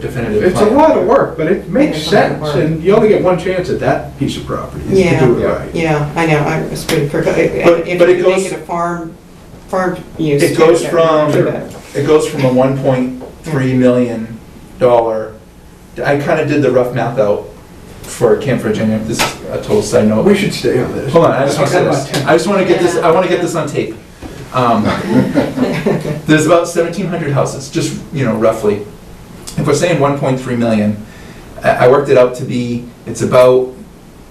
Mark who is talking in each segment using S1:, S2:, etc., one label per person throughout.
S1: definitive
S2: It's a
S1: plan.
S2: lot of work, but it makes
S3: It's a lot of
S2: sense, and you only get one chance at that piece of property, is to
S3: Yeah.
S2: do it right.
S3: Yeah, I know, I was pretty, for- if
S4: But-
S3: if
S4: but it
S3: you make
S4: goes-
S3: it a farm, farm use.
S4: It goes
S3: yeah,
S4: from-
S3: do that.
S4: It goes from a one point three million dollar, I kind of did the rough math out for Camp Virginia, this is a total side note.
S2: We should stay on this.
S4: Hold on, I just want to say
S2: About
S4: this.
S2: 10.
S4: I just want to get this, I want to get this on tape. Um, There's about 1,700 houses, just, you know, roughly. If we're saying 1.3 million, I I worked it out to be, it's about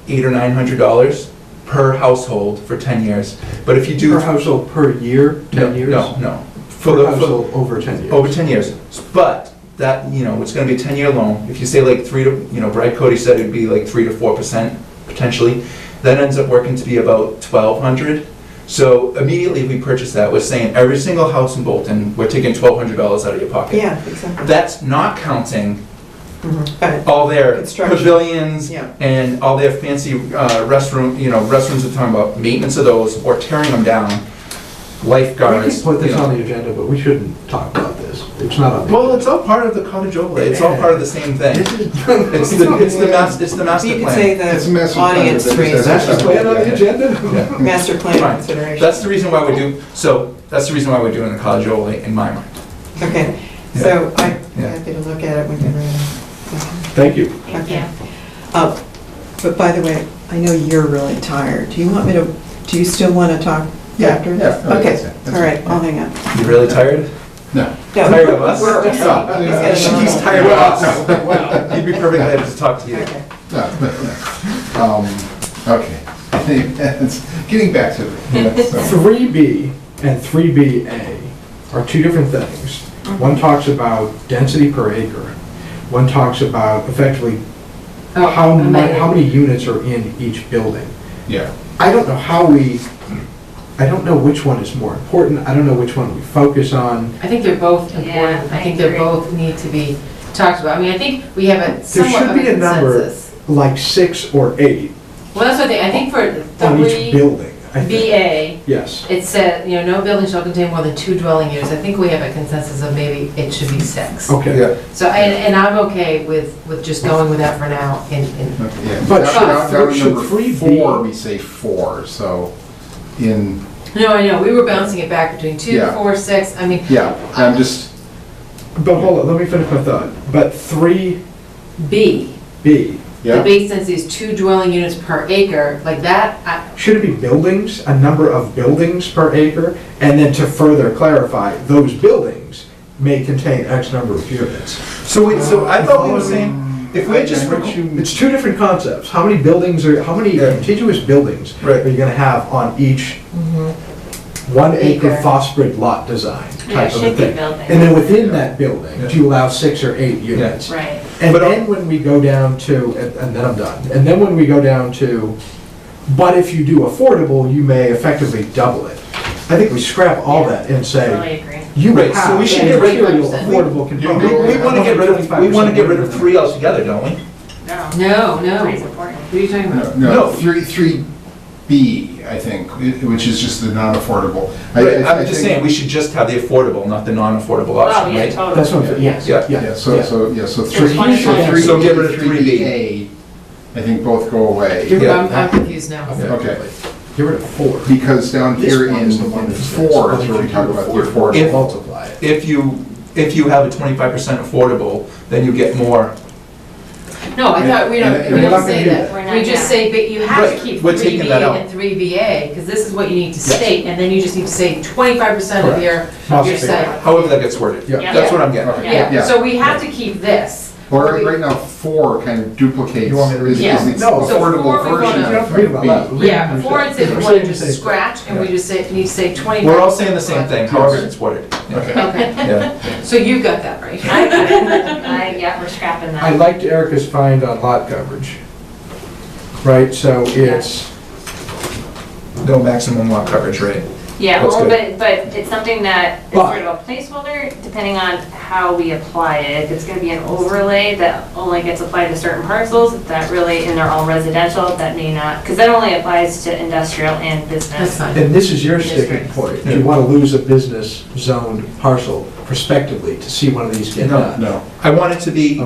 S4: eight or $900 per household for 10 years. But if you do.
S2: Per household per year,
S4: No,
S2: 10 years?
S4: No, no. For Oh,
S2: Per
S4: the, for-
S2: household over 10 years.
S4: over 10 years. But that, you know, it's gonna be a 10-year loan. If you say like three to, you know, Brad Cody said it'd be like three to 4% potentially. That ends up working to be about 1,200. So immediately if we purchase that, we're saying every single house in Bolton, we're taking $1,200 out of your pocket.
S3: Yeah, exactly.
S4: That's not counting
S3: Mhm. But,
S4: all their
S3: Construction.
S4: pavilions
S3: Yeah.
S4: and all their fancy uh, restroom, you know, restrooms we're talking about, maintenance of those or tearing them down,
S2: We
S4: lifeguards.
S2: can put this
S4: you know.
S2: on the agenda, but we shouldn't talk about this. It's not on the...
S4: Well, it's all part of the cottage overlay, it's all part of the same thing.
S2: This is-
S4: It's the, it's the mas, it's the master
S3: You could say
S4: plan.
S5: It's a
S3: the
S5: massive plan,
S3: audience
S5: but it's-
S2: Is
S3: reason,
S2: that the plan on the agenda?
S4: Yeah.
S3: master plan
S4: Fine.
S3: consideration.
S4: That's the reason why we do, so, that's the reason why we're doing the cottage overlay in my mind.
S3: Okay,
S4: Yeah.
S3: so I'm
S4: Yeah.
S3: happy to look at it when you're
S2: Thank you.
S3: ready.
S6: Thank
S3: Okay.
S6: you.
S3: Uh, But by the way, I know you're really tired. Do you want me to, do you still want to talk
S5: Yeah,
S3: after
S5: yeah,
S3: this?
S5: oh, yeah, that's
S3: Okay,
S5: it, that's
S3: all right,
S5: it.
S3: I'll hang up.
S4: You really tired?
S5: No. Uh,
S3: No,
S4: Tired of us?
S3: we're-
S4: He's
S3: He's
S4: tired of us. He'd be perfectly happy to talk to you.
S3: Okay.
S5: Um, Okay. Getting back to it. So,
S2: 3B and 3BA are two different things.
S4: Mm-hmm.
S2: One talks about density per acre. One talks about effectively how mu, how many units are in each building.
S5: Yeah.
S2: I don't know how we, I don't know which one is more important, I don't know which one we focus on.
S7: I think they're both
S6: Yeah,
S7: important.
S6: I
S7: I think they
S6: agree.
S7: both need to be talked about. I mean, I think we have a
S2: There
S7: somewhat
S2: should
S7: of a
S2: be a number,
S7: consensus.
S2: like six or eight
S7: Well, that's what they, I think for
S2: on each
S7: three
S2: building, I think.
S7: BA,
S2: Yes.
S7: it said, you know, no building shall contain more than two dwelling units. I think we have a consensus of maybe it should be six.
S2: Okay.
S7: So, and, and I'm okay with, with just going with that for now and, and,
S5: yeah.
S2: But
S5: Down-
S7: should-
S5: down- down to
S2: should
S5: number
S2: three be-
S5: Four, we say four, so in,
S7: no, I know, we were bouncing it back between two,
S5: Yeah.
S7: four, six. I mean,
S5: yeah, I'm just,
S2: But hold on, let me finish my thought. But 3B,
S7: B, the
S5: yeah,
S7: base density is two dwelling units per acre, like that, I,
S2: Should it be buildings, a number of buildings per acre? And then to further clarify, those buildings may contain X number of units.
S4: So wait, so I thought we were saying, if we're just,
S5: I know.
S2: It's two different concepts. How many buildings are, how many
S4: Yeah.
S2: contiguous buildings
S4: Right.
S2: are you gonna have on each one acre
S7: Acre.
S2: phosphorid lot design
S6: Mm-hmm. Yeah, it
S2: type of a
S6: should be
S2: thing?
S6: building.
S2: And then within that building,
S4: Yeah.
S2: do you allow six or eight units?
S6: Right.
S2: And
S4: But-
S2: then when we go down to, and and then I'm done, and then when we go down to, but if you do affordable, you may effectively double it. I think we scrap all that and
S6: Totally
S2: say,
S6: agree.
S2: you
S4: Right, so
S2: have
S4: we should
S2: a
S4: get rid of-
S2: material affordable
S4: we,
S2: component.
S4: we wanna get rid of, we wanna get rid of three altogether, don't we?
S6: No.
S7: no,
S6: Three's
S7: no.
S6: important.
S7: What are you talking about?
S5: no, no,
S4: No.
S5: three, three B, I think, i- which is just the non-affordable. I-
S4: Right,
S5: I- I
S4: I'm just
S5: think-
S4: saying, we should just have the affordable, not the non-affordable
S6: Oh,
S4: option,
S6: yeah,
S4: right?
S6: totally.
S2: That's what I'm saying, yes,
S4: Yeah.
S2: yeah,
S5: Yeah, so,
S2: yeah.
S5: so, yeah, so three,
S6: There's
S5: so
S6: one
S4: point.
S5: three,
S4: So get rid of
S5: three
S4: 3B.
S5: B, I think both go away.
S4: Yeah.
S7: I'm, I'm confused now.
S5: Okay,
S2: Get rid of four.
S5: because down
S2: This
S5: here
S2: one
S5: in
S2: is the one
S5: in
S2: that says,
S5: four
S2: but
S5: is
S2: if
S5: where
S2: you
S5: we talk
S2: do
S5: about the
S2: affordable,
S4: If-
S5: affordable.
S2: Multiply it.
S4: If you, if you have a 25% affordable, then you get more
S7: No, I thought we
S5: And-
S7: don't,
S5: and
S7: we
S5: we're
S2: not
S7: don't say
S2: gonna do
S6: that. We're
S7: that.
S6: not
S7: We just
S6: down.
S7: say, but you have
S4: Right,
S7: to keep
S4: we're
S7: three
S4: taking
S7: BA
S4: that out.
S7: and three BA, because this is what you need to
S4: Yes.
S7: state, and then you just need to say twenty-five percent of
S2: Correct.
S7: your,
S2: Must
S7: your
S2: be.
S7: site.
S4: however that gets worded.
S2: Yeah.
S4: That's what I'm getting at.
S5: Okay,
S7: Yeah, so we have to keep this.
S5: Or
S7: We-
S5: right now, four kind of duplicates.
S4: You want me to read
S5: is-
S7: it?
S5: is the
S2: No,
S7: so four
S5: Affordable
S7: we
S5: version
S7: wanna-
S5: of
S2: Read about that.
S5: B.
S7: Yeah, before it said we want to
S2: Same,
S7: just
S2: same.
S7: scratch, and we
S4: Yeah.
S7: just say, need to say twenty-five.
S4: We're all saying the same thing, however it's worded. Yeah.
S7: Okay,
S4: Yeah.
S7: so you got that right.
S6: I, yeah, we're scrapping that.
S2: I liked Erica's find on lot coverage. Right, so it's,
S4: No maximum lot coverage, right?
S6: Yeah,
S4: That's
S6: well,
S4: good.
S6: but, but it's something that is
S2: But-
S6: sort of a placeholder, depending on how we apply it. If It's gonna be an overlay that only gets applied to certain parcels, that really, and they're all residential, that may not, because that only applies to industrial and
S7: That's
S6: business.
S7: fine.
S2: And this is your
S7: Yes,
S2: sticking
S7: right.
S2: point. Do you want to lose a business zoned parcel prospectively to see one of these get
S4: No,
S2: done?
S5: No.
S4: I want it to be